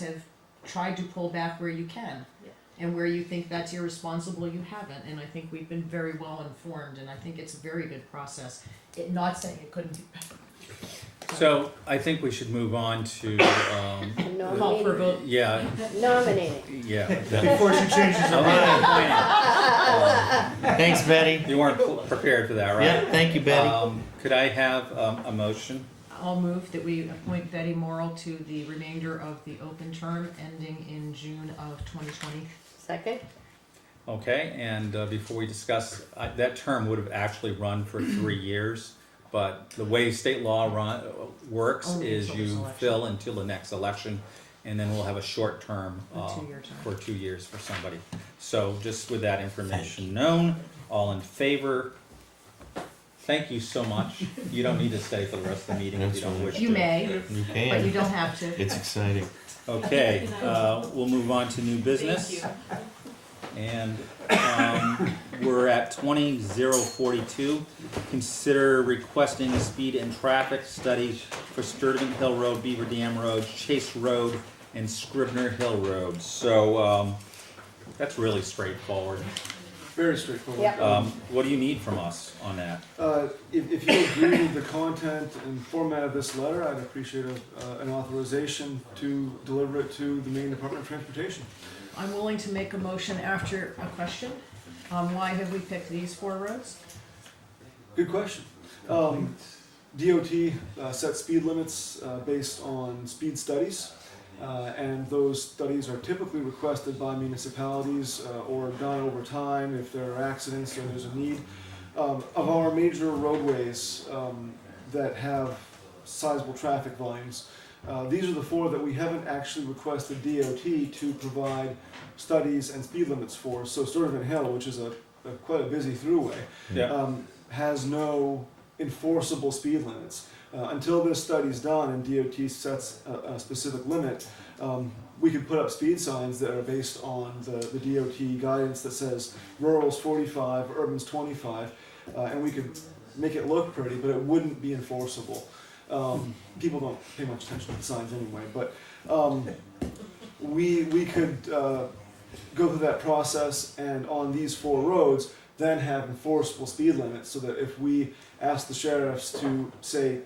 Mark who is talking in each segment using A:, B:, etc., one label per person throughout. A: have tried to pull back where you can.
B: Yeah.
A: And where you think that's irresponsible, you haven't, and I think we've been very well informed, and I think it's a very good process. It, not saying it couldn't be better.
C: So I think we should move on to, um,
A: Call for a
B: Nominating.
A: vote.
C: yeah,
B: Nominating.
C: yeah. the-
D: Before she changes her mind.
C: Um,
D: Thanks, Betty.
C: You weren't pl- prepared for that, right?
D: Yeah, thank you, Betty.
C: Um, Could I have um, a motion?
A: I'll move that we appoint Betty Morrell to the remainder of the open term ending in June of twenty twenty.
B: Second?
C: Okay, and uh, before we discuss, I- that term would have actually run for three years, but the way state law run, uh, works
A: Only
C: is
A: until this
C: you
A: election.
C: fill until the next election, and then we'll have a short term.
A: A
C: uh,
A: two-year term.
C: For two years for somebody. So just with that information known, all in favor, thank you so much. You don't need to stay for the rest of the meeting if you don't wish to.
A: You may,
D: You
A: but you
D: can.
A: don't have to.
D: It's exciting.
C: Okay, uh, we'll move on to new business. And, um, we're at twenty zero forty-two. Consider requesting a speed and traffic study for Sturtevant Hill Road, Beaver Dam Road, Chase Road, and Scribner Hill Road. So, um, that's really straightforward.
E: Very straightforward.
B: Yep.
C: Um, what do you need from us on that?
E: Uh, if, if you agree with the content and format of this letter, I'd appreciate a, uh, an authorization to deliver it to the Maine Department of Transportation.
A: I'm willing to make a motion after a question. Um, why have we picked these four roads?
E: Good question. Um, DOT uh, sets speed limits uh, based on speed studies, uh, and those studies are typically requested by municipalities uh, or done over time if there are accidents or there's a need. Um, of our major roadways um, that have sizable traffic volumes, uh, these are the four that we haven't actually requested DOT to provide studies and speed limits for. So Sturtevant Hill, which is a, a quite a busy throughway,
C: Yeah,
E: um, has no enforceable speed limits. Uh, until this study's done and DOT sets a, a specific limit, um, we could put up speed signs that are based on the, the DOT guidance that says rural's 45, urban's 25, uh, and we could make it look pretty, but it wouldn't be enforceable. Um, people don't pay much attention to the signs anyway, but um, we, we could uh, go through that process and on these four roads, then have enforceable speed limits so that if we ask the sheriffs to say,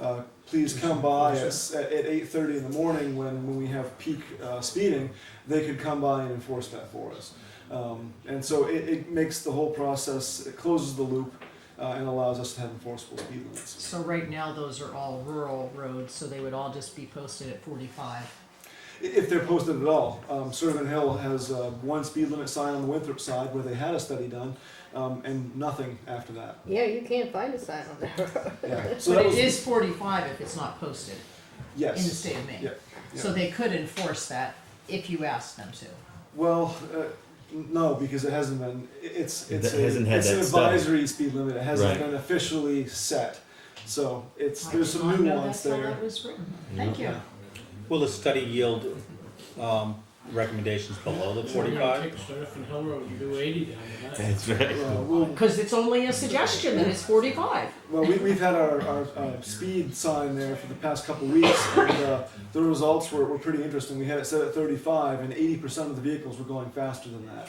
E: uh, please come by us at, at 8.30 in the morning when, when we have peak uh, speeding, they could come by and enforce that for us. Um, and so it, it makes the whole process, it closes the loop uh, and allows us to have enforceable speed limits.
A: So right now, those are all rural roads, so they would all just be posted at forty-five.
E: I- If they're posted at all, um, Servant Hill has uh, one speed limit sign on the Winthrop side where they had a study done um, and nothing after that.
B: Yeah, you can't find a sign on there.
E: Yeah. So
A: But it
E: that was,
A: is forty-five if it's not posted in the
E: yes.
A: state of Maine.
E: Yeah,
A: So they could enforce that if you asked them to.
E: Well, uh, n- no, because it hasn't been. i- It's it's,
D: That
E: a-
D: hasn't had
E: it's an
D: that study.
E: advisory speed limit. It hasn't
D: Right.
E: been officially set, so it's
A: I
E: there's
A: did
E: some
A: not know
E: nuance
A: that's how
E: there.
A: that was written. Thank you.
E: Yeah.
C: will the study yield, um, recommendations below the
F: You
C: forty-five?
F: take Surf and Hill Road, you do eighty down the line.
D: That's right.
E: Yeah, well,
A: Because it's only a suggestion that it's forty-five.
E: well, we, we've had our, our uh, speed sign there for the past couple weeks, and uh, the results were, were pretty interesting. We had it set at 35, and 80% of the vehicles were going faster than that,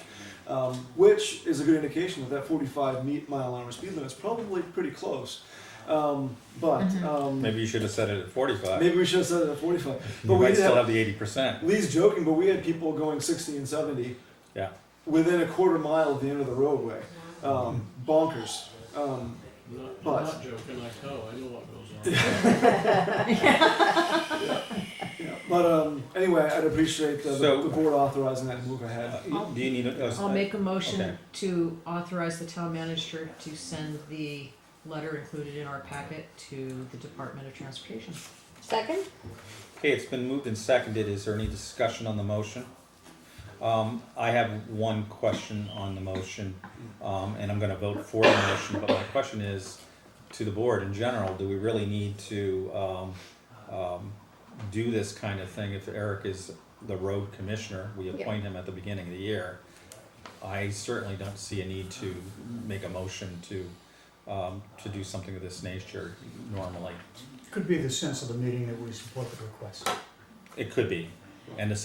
E: um, which is a good indication that that 45 me- mile an hour speed limit is probably pretty close. Um, but um,
C: Maybe you should have said it at forty-five.
E: Maybe we should have said it at 45. But
C: You
E: we
C: might
E: did
C: still
E: have,
C: have the eighty percent.
E: Lee's joking, but we had people going 60 and 70
C: Yeah.
E: within a quarter mile of the end of the roadway. Um, bonkers. Um,
F: I'm not, I'm
E: But-
F: not joking, I know, I know what goes on.
E: yeah. But um, anyway, I'd appreciate the,
C: So-
E: the board authorizing that and move ahead.
C: Do you need a? a-
A: I'll make a motion
C: Okay.
A: to authorize the town manager to send the letter included in our packet to the Department of Transportation.
B: Second?
C: Okay, it's been moved and seconded. Is there any discussion on the motion? Um, I have one question on the motion, um, and I'm gonna vote for the motion, but my question is to the board in general, do we really need to, um, um, do this kind of thing if Eric is the road commissioner? We
B: Yeah.
C: appoint him at the beginning of the year. I certainly don't see a need to make a motion to, um, to do something of this nature normally.
G: Could be the sense of the meeting that we support the request.
C: It could be, and a